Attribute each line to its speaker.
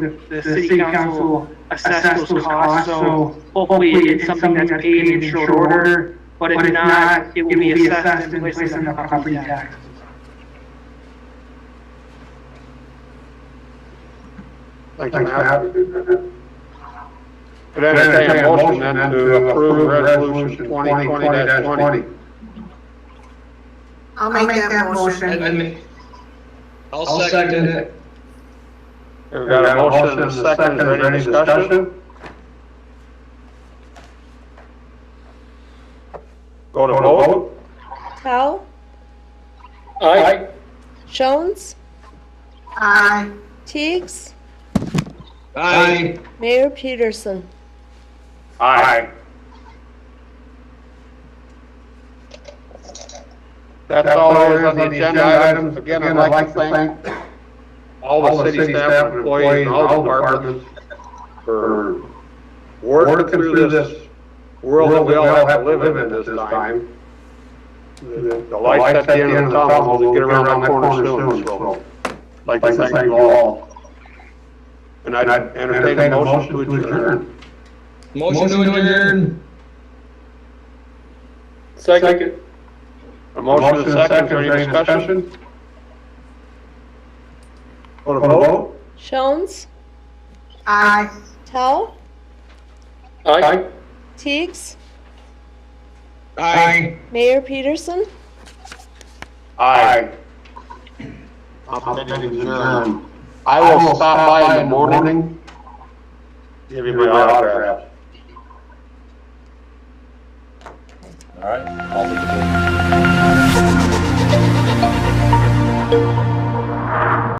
Speaker 1: the,
Speaker 2: the city council assess those costs, so hopefully it's something that's paid in short order. But if not, it will be assessed and placed on the property tax.
Speaker 3: Thank you,
Speaker 4: Thanks, Matt.
Speaker 3: Matt.
Speaker 4: Would
Speaker 3: Could I entertain a motion then to approve resolution twenty twenty twenty?
Speaker 4: 2020-20?
Speaker 5: I'll make that motion.
Speaker 6: I'll second it.
Speaker 3: We've got a motion and a second, is there any discussion? Go to
Speaker 4: Go to
Speaker 3: vote?
Speaker 4: vote?
Speaker 7: Powell,
Speaker 3: Aye.
Speaker 7: Jones,
Speaker 5: Aye.
Speaker 7: Teigs,
Speaker 6: Aye.
Speaker 7: Mayor Peterson.
Speaker 3: Aye. That's all there is on the agenda items. Again, I'd like to thank all the city staff, employees, and all departments for
Speaker 4: for
Speaker 3: working through this world that we all have to live in this time.
Speaker 4: The
Speaker 3: The lights at the end of the tunnel will get around that corner soon, so I'd like to thank you all. And I would entertain a motion to adjourn.
Speaker 6: Motion to adjourn.
Speaker 3: Second. A motion and a second, is there any discussion? Want to vote?
Speaker 7: Jones,
Speaker 5: Aye.
Speaker 7: Powell,
Speaker 3: Aye.
Speaker 7: Teigs,
Speaker 6: Aye.
Speaker 7: Mayor Peterson.
Speaker 3: Aye. I'm adjourned. I will stop by in the morning. Give you my autograph.
Speaker 8: All right, I'll leave it there.